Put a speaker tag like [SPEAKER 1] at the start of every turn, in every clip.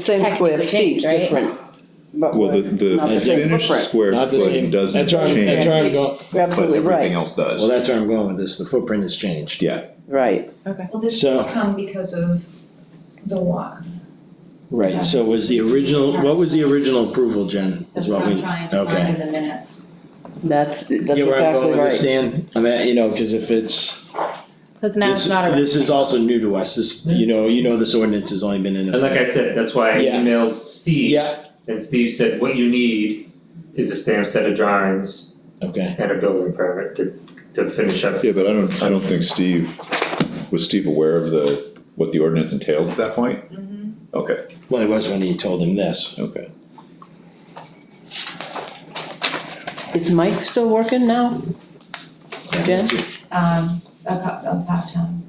[SPEAKER 1] Same square
[SPEAKER 2] Technically
[SPEAKER 1] feet,
[SPEAKER 2] changed, right?
[SPEAKER 1] different. but
[SPEAKER 3] Well, the,
[SPEAKER 1] we're not
[SPEAKER 3] the
[SPEAKER 1] same
[SPEAKER 3] finished
[SPEAKER 1] footprint.
[SPEAKER 3] square
[SPEAKER 4] Not the
[SPEAKER 3] footing
[SPEAKER 4] same,
[SPEAKER 3] doesn't
[SPEAKER 4] that's where I'm, that's where
[SPEAKER 3] change,
[SPEAKER 4] I'm going,
[SPEAKER 1] You're
[SPEAKER 3] but
[SPEAKER 1] absolutely
[SPEAKER 3] everything
[SPEAKER 1] right,
[SPEAKER 3] else does.
[SPEAKER 4] well, that's where I'm going with this, the footprint has changed.
[SPEAKER 3] Yeah,
[SPEAKER 1] right.
[SPEAKER 5] Well, this
[SPEAKER 4] So-
[SPEAKER 5] will come because of the water.
[SPEAKER 4] Right, so was the original, what was the original approval, Jen,
[SPEAKER 2] That's
[SPEAKER 4] is what
[SPEAKER 2] what
[SPEAKER 4] we,
[SPEAKER 2] I'm
[SPEAKER 4] okay.
[SPEAKER 2] trying to find in the minutes.
[SPEAKER 1] That's, that's exactly right.
[SPEAKER 4] Get where I'm going with this, Dan, I mean, you know, cause if it's,
[SPEAKER 2] Cause now it's
[SPEAKER 4] this,
[SPEAKER 2] not a.
[SPEAKER 4] this is also new to us, this, you know, you know, this ordinance has only been in
[SPEAKER 6] And like
[SPEAKER 4] effect.
[SPEAKER 6] I said, that's why I
[SPEAKER 4] Yeah.
[SPEAKER 6] emailed Steve.
[SPEAKER 4] Yeah,
[SPEAKER 6] And Steve said, what you need is a stamped set of drawings
[SPEAKER 4] okay,
[SPEAKER 6] and a building permit to, to finish up.
[SPEAKER 3] yeah, but I don't, I don't think Steve, was Steve aware of the, what the ordinance entailed at that point?
[SPEAKER 1] Mm-hmm.
[SPEAKER 3] Okay,
[SPEAKER 4] well, it was when you told him this,
[SPEAKER 3] okay.
[SPEAKER 1] Is Mike still working now?
[SPEAKER 4] yeah,
[SPEAKER 1] Jen?
[SPEAKER 4] that's it.
[SPEAKER 5] Um, a cup, a pot town.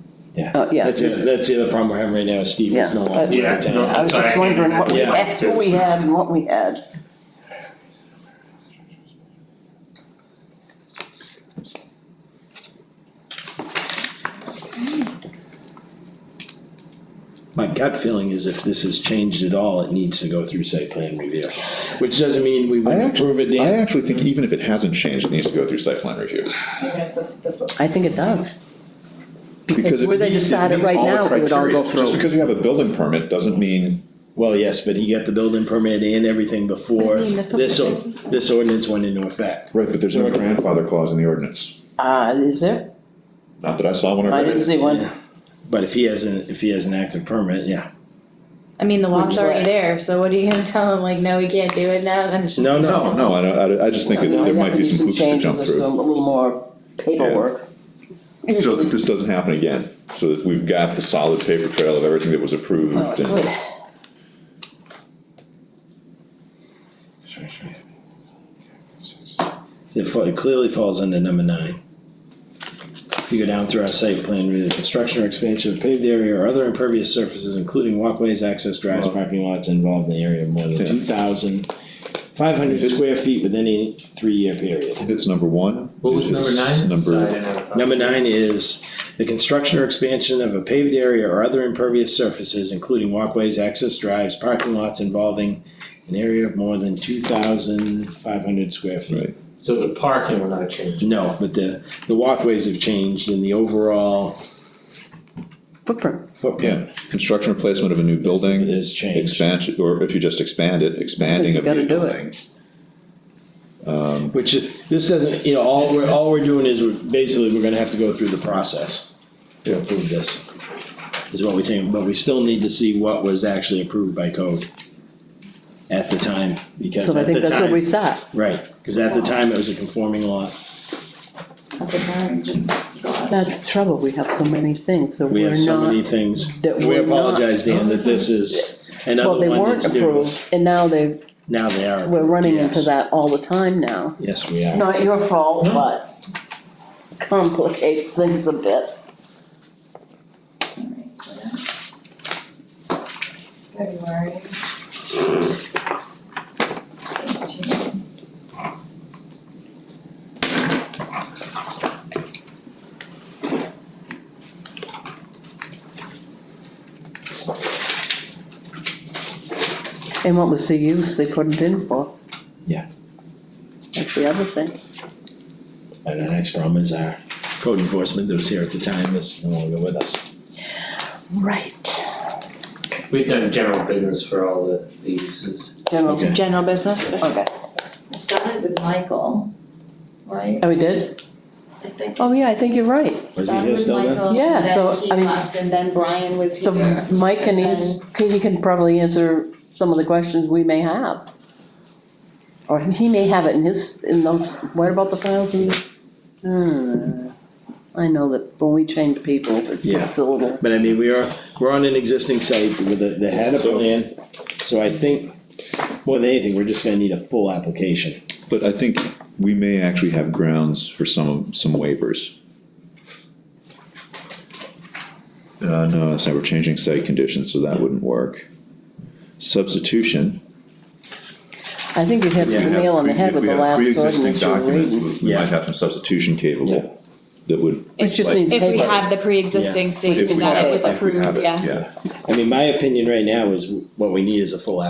[SPEAKER 1] Oh, yeah.
[SPEAKER 4] That's, the- that's the other problem we're having right now, is Steve
[SPEAKER 1] Yeah.
[SPEAKER 4] is no longer.
[SPEAKER 6] Yeah,
[SPEAKER 4] in town.
[SPEAKER 6] no,
[SPEAKER 1] I was
[SPEAKER 6] Sorry, I
[SPEAKER 1] just
[SPEAKER 6] can't
[SPEAKER 1] wondering what we
[SPEAKER 4] remember.
[SPEAKER 1] had, what we had and what we had.
[SPEAKER 4] My gut feeling is if this is changed at all, it needs to go through site plan review, which doesn't mean we
[SPEAKER 3] I
[SPEAKER 4] wouldn't approve it,
[SPEAKER 3] actually, I
[SPEAKER 4] Dan.
[SPEAKER 3] actually think even if it hasn't changed, it needs to go through site plan review.
[SPEAKER 1] I think it does.
[SPEAKER 3] Because it
[SPEAKER 1] Where they
[SPEAKER 3] meets- it
[SPEAKER 1] decided
[SPEAKER 3] meets
[SPEAKER 1] right
[SPEAKER 3] all the
[SPEAKER 1] now, it would all
[SPEAKER 3] criteria.
[SPEAKER 1] go
[SPEAKER 3] Just
[SPEAKER 1] through.
[SPEAKER 3] because you have a building permit doesn't mean,
[SPEAKER 4] Well, yes, but he got the building permit and everything before
[SPEAKER 2] I mean, the
[SPEAKER 4] this, or- this ordinance went into effect.
[SPEAKER 3] right, but there's no
[SPEAKER 4] Sort of.
[SPEAKER 3] grandfather clause in the ordinance.
[SPEAKER 1] Uh, is there?
[SPEAKER 3] Not that I saw one or
[SPEAKER 1] I didn't see one.
[SPEAKER 4] Yeah. But if he has an, if he has an active permit, yeah.
[SPEAKER 2] I mean, the
[SPEAKER 1] Which
[SPEAKER 2] law's
[SPEAKER 1] is
[SPEAKER 2] already
[SPEAKER 1] what?
[SPEAKER 2] there, so what are you gonna tell him, like, no, we can't do it now, then it's just.
[SPEAKER 4] No,
[SPEAKER 3] No, no, I don't, I don't- I just think that
[SPEAKER 1] No, you
[SPEAKER 3] there might
[SPEAKER 1] have
[SPEAKER 3] be
[SPEAKER 1] do
[SPEAKER 3] some hoops to
[SPEAKER 1] changes
[SPEAKER 3] jump
[SPEAKER 1] or
[SPEAKER 3] through.
[SPEAKER 1] some- A little more paperwork.
[SPEAKER 3] So that this doesn't happen again, so that we've got the solid paper trail of everything that was
[SPEAKER 1] Oh,
[SPEAKER 3] approved
[SPEAKER 1] good.
[SPEAKER 3] and.
[SPEAKER 4] It fa- it clearly falls under number nine. If you go down through our site plan, with the construction or expansion of paved area or other impervious surfaces, including walkways, access drives, parking lots involved in the area of more than
[SPEAKER 3] Yeah.
[SPEAKER 4] two thousand five hundred
[SPEAKER 3] It's-
[SPEAKER 4] square feet within a three-year period.
[SPEAKER 3] It's number one.
[SPEAKER 6] What was number
[SPEAKER 3] it's
[SPEAKER 6] nine? Sorry, I
[SPEAKER 3] Number,
[SPEAKER 6] didn't have a copy.
[SPEAKER 4] Number nine is the construction or expansion of a paved area or other impervious surfaces, including walkways, access drives, parking lots involving an area of more than two thousand five hundred square feet.
[SPEAKER 3] right,
[SPEAKER 6] So the parking will not change.
[SPEAKER 4] No, but the, the walkways have changed and the overall
[SPEAKER 1] Footprint.
[SPEAKER 4] footprint
[SPEAKER 3] yeah, construction replacement of a new building,
[SPEAKER 4] has changed,
[SPEAKER 3] expansion, or if you just expand it, expanding
[SPEAKER 1] You
[SPEAKER 3] of a
[SPEAKER 1] gotta
[SPEAKER 3] new
[SPEAKER 1] do it.
[SPEAKER 3] building. Um,
[SPEAKER 4] which is, this doesn't, you know, all we're, all we're doing is we're, basically, we're gonna have to go through the process to
[SPEAKER 3] Yeah.
[SPEAKER 4] approve this, is what we think, but we still need to see what was actually approved by code at the time, because
[SPEAKER 1] So I
[SPEAKER 4] at
[SPEAKER 1] think
[SPEAKER 4] the
[SPEAKER 1] that's what we
[SPEAKER 4] time,
[SPEAKER 1] saw.
[SPEAKER 4] right, cause at the time it was a conforming law,
[SPEAKER 5] At the time, just go out.
[SPEAKER 1] That's the trouble. We have so many things, so
[SPEAKER 4] we
[SPEAKER 1] we're
[SPEAKER 4] have so
[SPEAKER 1] not
[SPEAKER 4] many things.
[SPEAKER 1] that
[SPEAKER 4] We
[SPEAKER 1] we're not-
[SPEAKER 4] apologize, Dan, that this is
[SPEAKER 1] Well,
[SPEAKER 4] another
[SPEAKER 1] they
[SPEAKER 4] one
[SPEAKER 1] weren't
[SPEAKER 4] that's new,
[SPEAKER 1] approved, and now they,
[SPEAKER 4] now they are,
[SPEAKER 1] we're running into
[SPEAKER 4] yes.
[SPEAKER 1] that all the time now.
[SPEAKER 4] yes, we are.
[SPEAKER 1] Not your fault, but complicates things a bit.
[SPEAKER 5] Alright, so that's February. Eighteen.
[SPEAKER 1] And what was the use they put it in for?
[SPEAKER 4] Yeah.
[SPEAKER 1] That's the other thing.
[SPEAKER 4] And our next problem is our code enforcement that was here at the time is no longer with us.
[SPEAKER 1] Right.
[SPEAKER 6] We've done general business for all the, the uses.
[SPEAKER 1] General,
[SPEAKER 4] Okay.
[SPEAKER 2] General business?
[SPEAKER 1] okay.
[SPEAKER 5] I started with Michael, right?
[SPEAKER 1] Oh, we did?
[SPEAKER 5] I think.
[SPEAKER 1] Oh, yeah, I think you're right.
[SPEAKER 4] Was he here still then?
[SPEAKER 1] Yeah, so, I mean-
[SPEAKER 5] Started with Michael, then he left, and then Brian was
[SPEAKER 1] So
[SPEAKER 5] here.
[SPEAKER 1] Mike can, ans- he can probably answer some of the questions we may have. Or he may have it in his, in those, what about the files in? Hmm. I know that when we change people,
[SPEAKER 4] Yeah.
[SPEAKER 1] it's a little,
[SPEAKER 4] But I mean, we are, we're on an existing site with a, they had a plan, so I think, more than anything, we're just gonna need a full application.
[SPEAKER 3] But I think we may actually have grounds for some, some waivers. Uh, no, that's not, we're changing site conditions, so that wouldn't work. Substitution.
[SPEAKER 1] I think you hit the
[SPEAKER 4] Yeah,
[SPEAKER 1] nail on the head
[SPEAKER 3] If
[SPEAKER 1] with
[SPEAKER 3] we
[SPEAKER 1] the
[SPEAKER 3] have
[SPEAKER 1] last
[SPEAKER 3] pre-existing
[SPEAKER 1] ordinance you were reading.
[SPEAKER 3] documents, We we
[SPEAKER 4] Yeah.
[SPEAKER 3] might have some substitution capable. that would,
[SPEAKER 1] It just needs
[SPEAKER 5] If we
[SPEAKER 1] paper.
[SPEAKER 5] had the pre-existing
[SPEAKER 3] if we
[SPEAKER 5] statement that
[SPEAKER 3] have
[SPEAKER 5] it
[SPEAKER 3] it,
[SPEAKER 5] was
[SPEAKER 3] if we
[SPEAKER 5] approved,
[SPEAKER 3] have it,
[SPEAKER 5] yeah.
[SPEAKER 3] yeah.
[SPEAKER 4] I mean, my opinion right now is what we need is a full application.